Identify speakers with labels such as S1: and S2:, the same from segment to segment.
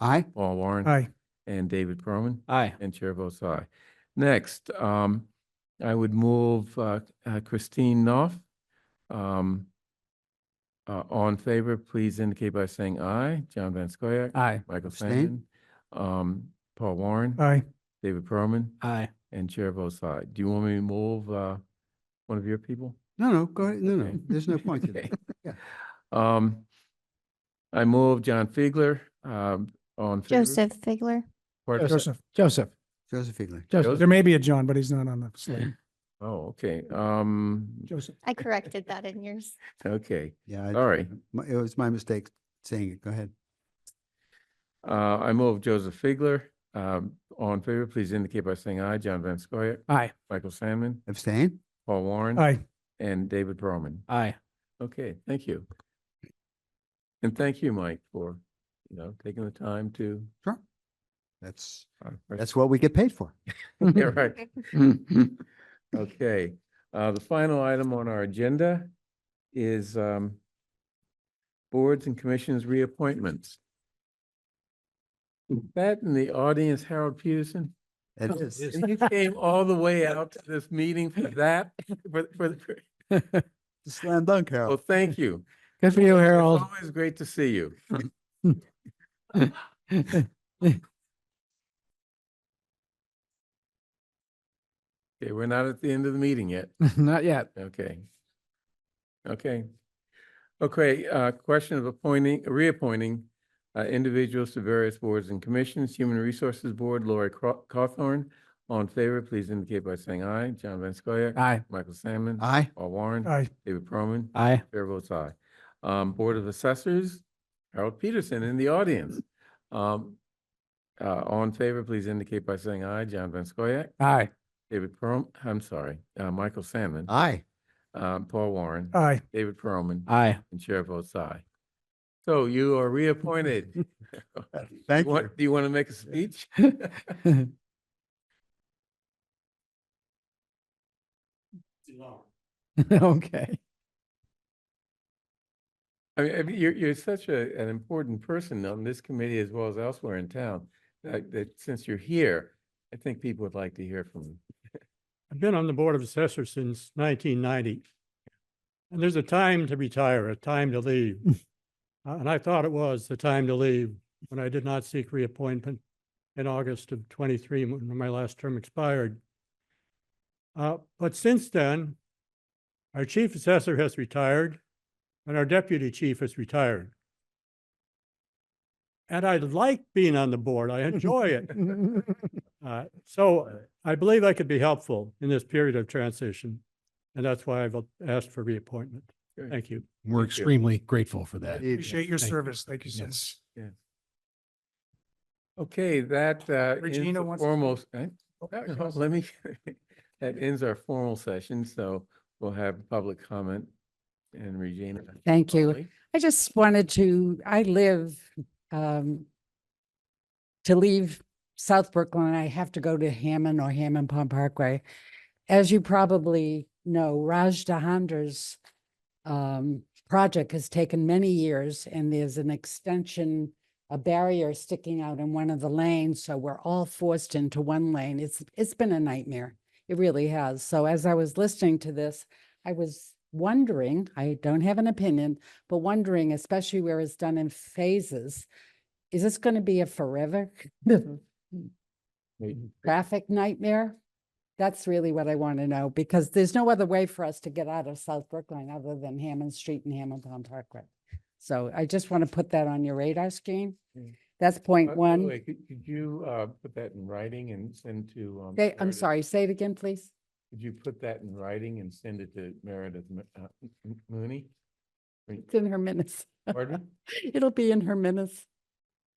S1: Aye.
S2: Paul Warren.
S3: Aye.
S2: And David Perlman.
S4: Aye.
S2: And chair votes aye. Next, um, I would move uh, uh, Christine Knopf. Um, uh, all in favor, please indicate by saying aye. John Van Scoyac.
S4: Aye.
S2: Michael Sandin.
S1: Abstain.
S2: Um, Paul Warren.
S3: Aye.
S2: David Perlman.
S4: Aye.
S2: And chair votes aye. Do you want me to move, uh, one of your people?
S1: No, no, go ahead. No, no,
S2: Okay.
S1: there's no point to
S2: Okay.
S1: that. Yeah.
S2: Um, I move John Figler, um, on.
S5: Joseph Figler.
S3: Joseph. Joseph.
S1: Joseph Figler.
S3: Joseph. There may be a John, but he's not on the slate.
S2: Oh, okay. Um,
S3: Joseph.
S5: I corrected that in yours.
S2: okay.
S1: Yeah. I-
S2: Sorry.
S1: my- It was my mistake saying it. Go ahead.
S2: Uh, I move Joseph Figler. Um, all in favor, please indicate by saying aye. John Van Scoyac,
S4: Aye.
S2: Michael Sandman,
S1: Abstain?
S2: Paul Warren.
S3: Aye.
S2: And David Perlman.
S4: Aye.
S2: Okay, thank you. And thank you, Mike, for, you know, taking the time to.
S1: That's,
S2: uh,
S1: that's what we get paid for.
S2: Yeah, right. Okay, uh, the final item on our agenda is, um, boards and commissions reappointments. Is That in the audience, Harold Peterson,
S1: It
S4: Oh,
S1: is.
S4: it
S2: and you came all the way out to this meeting for that, for, for, for-
S1: Slam dunk,
S2: well,
S1: Harold.
S2: thank you.
S4: Good for you,
S2: It's
S4: Harold.
S2: always great to see you. Okay, we're not at the end of the meeting yet.
S4: Not yet.
S2: Okay. Okay. Okay, uh, question of appointing, reappointing uh, individuals to various boards and commissions. Human Resources Board, Lori Craw- Cawthorn. All in favor, please indicate by saying aye. John Van Scoyac.
S4: Aye.
S2: Michael Salmon.
S1: Aye.
S2: Paul Warren.
S3: Aye.
S2: David Perlman.
S4: Aye.
S2: Chair votes aye. Um, Board of Assessors, Harold Peterson in the audience. Um, uh, all in favor, please indicate by saying aye. John Van Scoyac.
S4: Aye.
S2: David Perl, I'm sorry, uh, Michael Salmon.
S1: Aye.
S2: Um, Paul Warren.
S3: Aye.
S2: David Perlman.
S4: Aye.
S2: And Chair votes aye. So you are reappointed. You
S1: Thank you.
S2: want- Do you want to make a speech?
S4: Okay.
S2: I mean, I mean, you're, you're such a, an important person on this committee as well as elsewhere in town, that, that since you're here, I think people would like to hear from you.
S6: I've been on the Board of Assessors since nineteen ninety. And there's a time to retire, a time to leave. Uh, And I thought it was the time to leave when I did not seek reappointment in August of twenty-three, when my last term expired. Uh, But since then, our chief assessor has retired and our deputy chief has retired. And I like being on the board. I enjoy it. Uh, So I believe I could be helpful in this period of transition, and that's why I've asked for reappointment.
S2: Good.
S6: Thank you.
S2: Thank
S7: We're
S2: you.
S7: extremely grateful for that.
S1: Indeed.
S3: Appreciate your
S7: Thank you.
S3: service. Thank you so much.
S7: Yes.
S2: Okay, that, uh, ends
S3: Regina
S2: the
S3: wants to-
S2: formal, eh?
S3: Oh,
S2: No,
S3: yes.
S2: no, Let me, that ends our formal session, so we'll have public comment and Regina.
S8: Thank you.
S2: only.
S8: I just wanted to, I live, um, to leave South Brooklyn, I have to go to Hammond or Hammond Pond Parkway. As you probably know, Raj Dahander's, um, project has taken many years and there's an extension, a barrier sticking out in one of the lanes, so we're all forced into one lane. It's, it's been a nightmare. It really has. So as I was listening to this, I was wondering, I don't have an opinion, but wondering, especially where it's done in phases, is this going to be a forever
S2: Wait.
S8: traffic nightmare? That's really what I want to know, because there's no other way for us to get out of South Brookline other than Hammond Street and Hamilton Parkway. So I just want to put that on your radar screen.
S2: Mm.
S8: That's
S2: Uh,
S8: point
S2: by the
S8: one.
S2: way, Could could you, uh, put that in writing and send to? um,
S8: They, I'm
S2: Meredith?
S8: sorry, say it again, please.
S2: Could you put that in writing and send it to Meredith Mo- uh, M- M- Mooney? Wait,
S8: It's in her minutes.
S2: Pardon?
S8: It'll be in her minutes.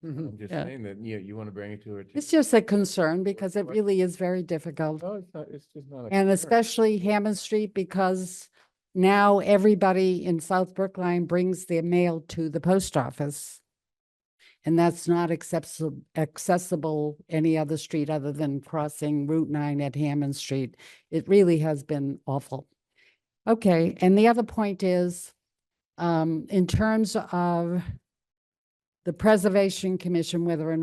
S2: I'm just
S8: Yeah.
S2: saying that, you, you Oh, want to bring it to her.
S8: It's just a concern because it
S2: what-
S8: really is very difficult.
S2: No, it's not, it's just not. a concern.
S8: And especially Hammond Street because now everybody in South Brookline brings their mail to the post office. And that's not accessible, accessible any other street other than crossing Route nine at Hammond Street. It really has been awful. Okay, and the other point is, um, in terms of the Preservation Commission, whether or not.